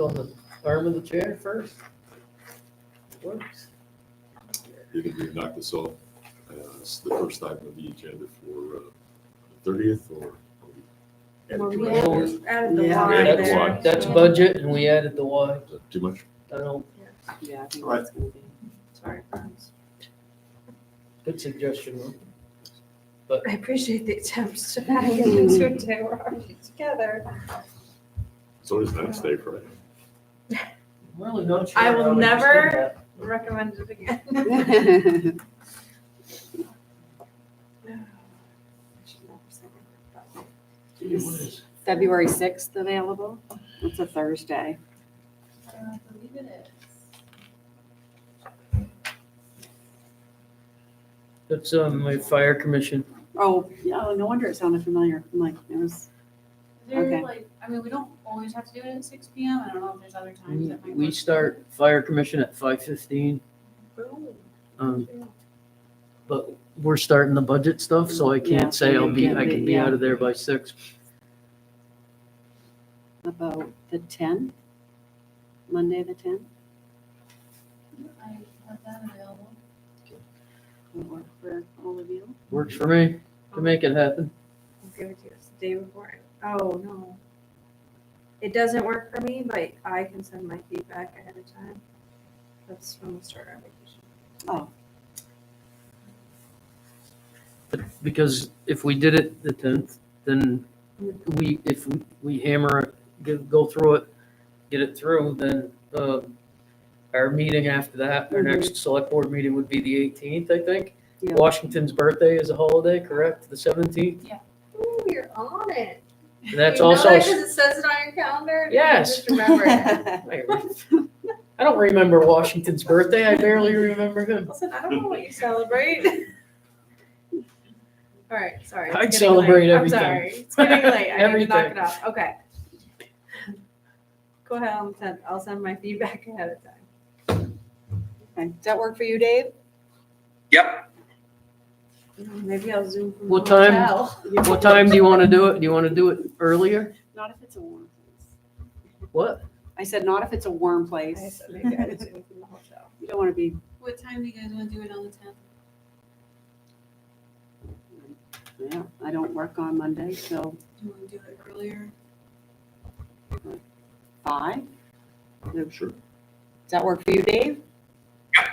on the arm of the chair first. Works. You can we knock this off as the first item of the agenda for uh, thirtieth or? Well, we Yeah. added- added the Yeah. Y Yeah, that's there, why. That's so- budget and we added the Y. Is that Too much? I don't, Yeah, I think Right. that's gonna be. Sorry, friends. good suggestion. Ron. I appreciate the attempts to back in these two today, we're already together. So it's next day, right? I'm really not sure. I will how we just did never- that. Recommend it again. Is February sixth available? It's a Thursday. I believe it That's um, my fire commission. Oh, yeah, oh, no wonder it sounded familiar. I'm like, it was, Is there Okay. like, I mean, we don't always have to do it at six P M. I don't know if there's other times We that might. we work. start fire commission at five fifteen. is. Um, but we're starting the budget stuff, so I Yeah, can't say I'll be, you I can't can be- be yeah. out of there by six. about the tenth, Monday, the tenth. I have that available. Would work for all of you. Works for me to make it happen. I'll give it to you. It's the day before. Oh, no. It doesn't work for me, but I can send my feedback ahead of time. That's when we start our vacation. Oh, Because if we did it the tenth, then we, if we- we hammer, it, get- go through it, get it through, then, um, our meeting after that, Mm-hmm. our next select board meeting would be the eighteenth, I think. Yeah. Washington's birthday is a holiday, correct? The seventeenth? Ooh, you're on it. That's You know that also, 'cause it says it on your calendar? and you Yes. just remember it. I don't remember Washington's birthday. I barely remember him. Listen, I don't know what you celebrate. All right, sorry. it's I'd getting celebrate late. everything. I'm sorry. It's getting late. I need to knock Everything. it off. Okay. Go ahead and send, I'll send my feedback ahead of time. Okay. Does that work for you, Dave? Maybe I'll zoom from the What time? hotel. What time do you want to do it? Do you want to do it earlier? Not if it's a warm place. What? I said, not if it's a warm I place. said maybe I'll You zoom from the hotel. don't want to be, What time do you guys want to do it on the tenth? yeah, I don't work on Monday, so Do you want to do it earlier? five. Does Sure. that work for you, Dave? Does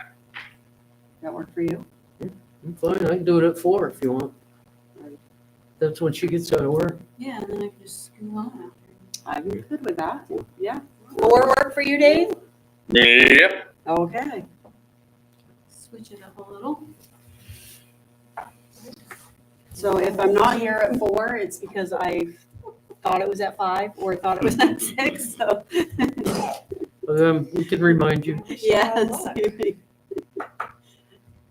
that work for you? I'm fine. I can do it at four if you want. Alright. That's when she gets out of work. Yeah, and then I can just scoot on after. I'm good with that, yeah. Four work for you, Dave? Yep. Okay. Switch it up a little. So if I'm not here at four, it's because I thought it was at five or thought it was at six, so. Um, we can remind you. Yes.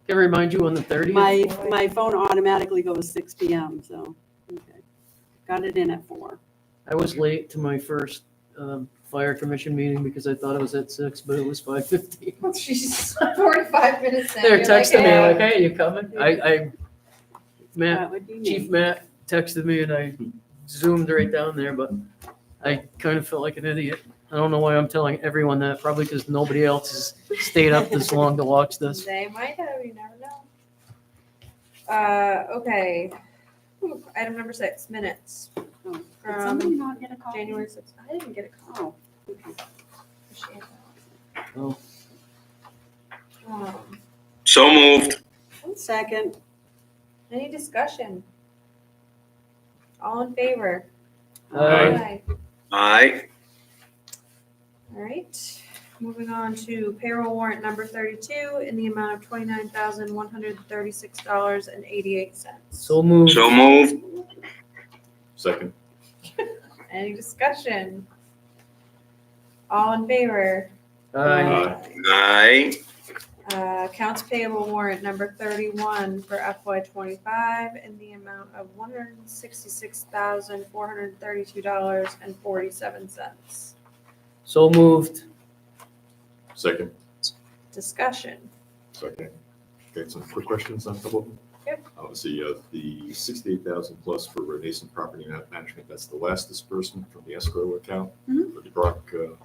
Can remind you on the thirtieth. My, my phone automatically goes six P M, so, okay. Got it in at four. I was late to my first um, fire commission meeting because I thought it was at six, but it was five fifteen. She's forty-five minutes in. They were You're like, texting "Hey." me like, "Hey, you coming?" I, I, Matt, That would be Chief me. Matt texted me and I zoomed right down there, but I kind of felt like an idiot. I don't know why I'm telling everyone that, probably because nobody else has stayed up this long to watch this. They might have, you never know. Uh, okay. Ooh, Item number six, minutes. Um, Oh, Did somebody From not get a call? January sixth. I didn't get a call. Oh, okay. Appreciate that. Oh. Um, So moved. One second. Any discussion? All in favor? Aye. Aye. All right, moving on to payroll warrant number thirty-two in the amount of twenty-nine thousand, one hundred and thirty-six dollars and eighty-eight cents. So moved. So moved. Second. Any discussion? All in favor? Aye. Aye. Uh, accounts payable warrant number thirty-one for FY twenty-five in the amount of one hundred and sixty-six thousand, four hundred and thirty-two dollars and forty-seven cents. So moved. Second. Discussion. Second. Okay, some quick questions on a couple of them. Yep. Obviously, uh, the sixty-eight thousand plus for Renaissance Property Management, that's the last disbursement from the escrow account Mm-hmm. Mhm. for the Brock, uh,